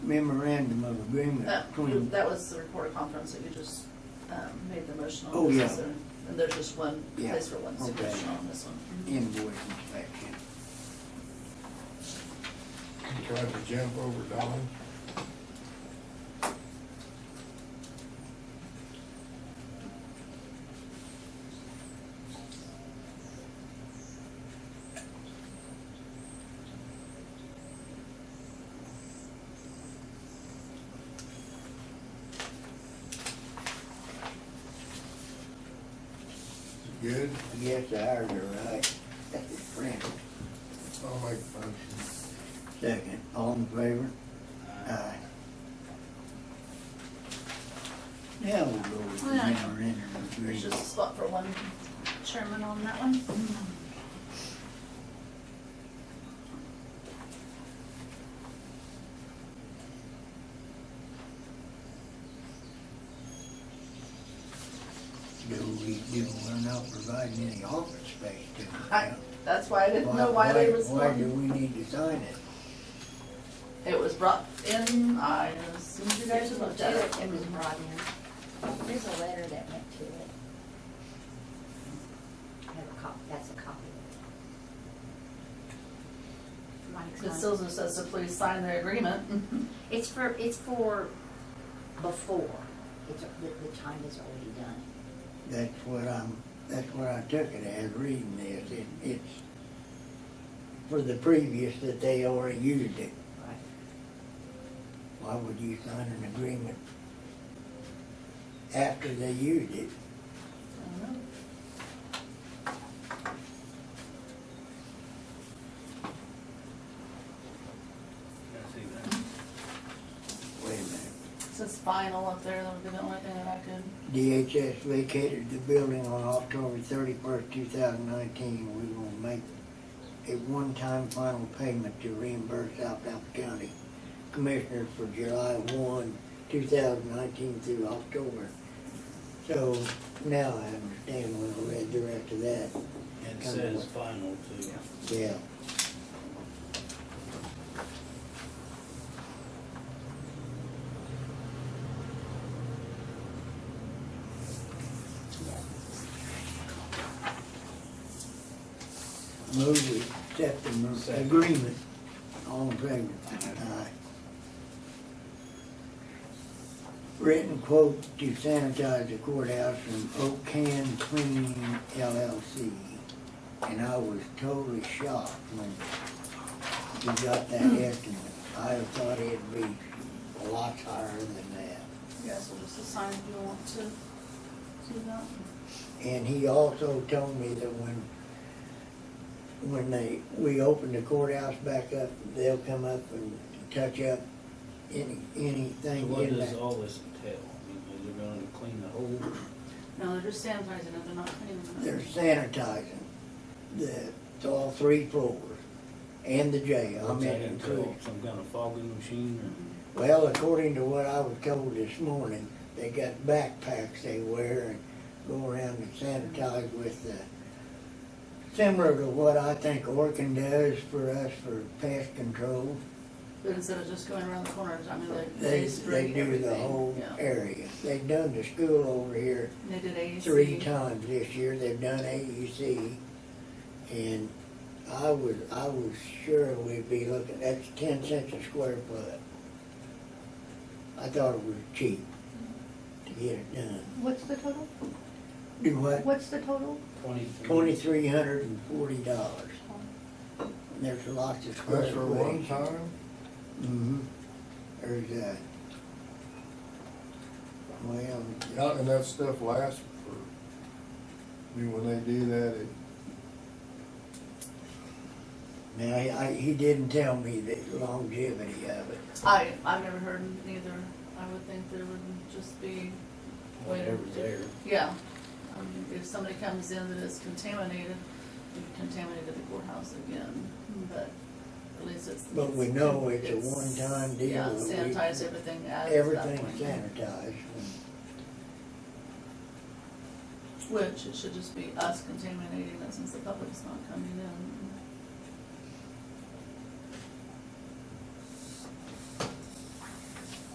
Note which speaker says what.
Speaker 1: memorandum of agreement
Speaker 2: That,
Speaker 1: between.
Speaker 2: Uh, that was the report conference that you just, um, made the motion on.
Speaker 1: Oh,
Speaker 2: This
Speaker 1: yeah.
Speaker 2: is there- And there's just one
Speaker 1: Yeah,
Speaker 2: place for one
Speaker 1: okay.
Speaker 2: signature on this one.
Speaker 1: invoice inspection.
Speaker 3: Tried to jump over Don. Good,
Speaker 1: Yes, ours are right. That's his friend.
Speaker 3: I'll make a motion.
Speaker 1: Second, all in favor? Aye. Now we'll go with the
Speaker 2: Yeah.
Speaker 1: memorandum of
Speaker 2: There's just a
Speaker 1: agreement.
Speaker 2: spot for one chairman on that one.
Speaker 1: Mm-hmm. Do we, do, we're not providing any office space to them
Speaker 2: I,
Speaker 1: now.
Speaker 2: that's why I didn't know why they was.
Speaker 1: Why do we need to sign it?
Speaker 2: It was brought in, I, as soon as you guys had looked at it.
Speaker 4: It was brought in. There's a letter that went to it. I have a cop, that's a copy. Mike's
Speaker 2: It
Speaker 4: on-
Speaker 2: still just says to please sign the agreement. Mm-hmm.
Speaker 4: It's for, it's for before, it's, the, the time is already done.
Speaker 1: That's what I'm, that's what I took it as, reading this. It, it's for the previous that they already used it.
Speaker 4: Right.
Speaker 1: Why would you sign an agreement after they used it?
Speaker 5: I see that.
Speaker 1: Wait a
Speaker 2: Since final up there, that would be the only thing that I could.
Speaker 1: minute. DHS vacated the building on October thirty-first, two thousand nineteen. We will make a one-time final payment to reimburse Alphaba County Commissioners for July one, two thousand nineteen through October. So now I understand when I read the rest of that.
Speaker 5: It says final too.
Speaker 1: Yeah. Move we accept the
Speaker 5: Second.
Speaker 1: agreement. All in favor? Aye. Written quote to sanitize the courthouse from Oak Can Cleaning LLC. And I was totally shocked when we got that
Speaker 5: Hmm.
Speaker 1: estimate. I thought it'd be a lot higher than that.
Speaker 2: You guys will just assign if you want to do that.
Speaker 1: And he also told me that when, when they, we open the courthouse back up, they'll come up and touch up any,
Speaker 5: So
Speaker 1: anything
Speaker 5: what
Speaker 1: in
Speaker 5: does
Speaker 1: that.
Speaker 5: all this entail? I mean, They're gonna clean the whole,
Speaker 2: No, they're just sanitizing it, they're not cleaning it.
Speaker 1: They're sanitizing the, to all three floors and the jail. I
Speaker 5: what's
Speaker 1: mean,
Speaker 5: that entail?
Speaker 1: including-
Speaker 5: Some kind of fogging machine
Speaker 1: Well, according to what I was told this morning, they got backpacks they wear and go around and sanitize with the, similar to what I think Orkin does for us for pest control.
Speaker 2: But instead of just going around the corners, I mean, they,
Speaker 1: They,
Speaker 2: they
Speaker 1: they
Speaker 2: spray
Speaker 1: do
Speaker 2: everything.
Speaker 1: the whole
Speaker 2: Yeah.
Speaker 1: area. They've done the school over here
Speaker 2: And They did AEC.
Speaker 1: three times this year. They've done AEC. And I was, I was sure we'd be looking, that's ten cents a square foot. I thought it was cheap to get it done.
Speaker 6: What's the total?
Speaker 1: Do what?
Speaker 6: What's the total?
Speaker 5: or twenty-three?
Speaker 1: Twenty-three hundred and forty dollars. There's lots of square.
Speaker 3: That's for one
Speaker 1: footage.
Speaker 3: time?
Speaker 1: Mm-hmm. There's a, well,
Speaker 3: Not enough stuff lasts for, I mean, when they do that, it,
Speaker 1: now, he- I, he didn't tell me the longevity of it.
Speaker 2: I, I've never heard neither, I would think there would just be,
Speaker 5: Whatever's there.
Speaker 2: yeah. I mean, if somebody comes in that is contaminated, you've contaminated the courthouse again, but at least it's.
Speaker 1: Hmm. But we know it's a one-time deal
Speaker 2: Yeah,
Speaker 1: that we-
Speaker 2: sanitize everything at that
Speaker 1: Everything
Speaker 2: point.
Speaker 1: sanitized.
Speaker 2: Which, it should just be us contaminating it since the public's not coming in.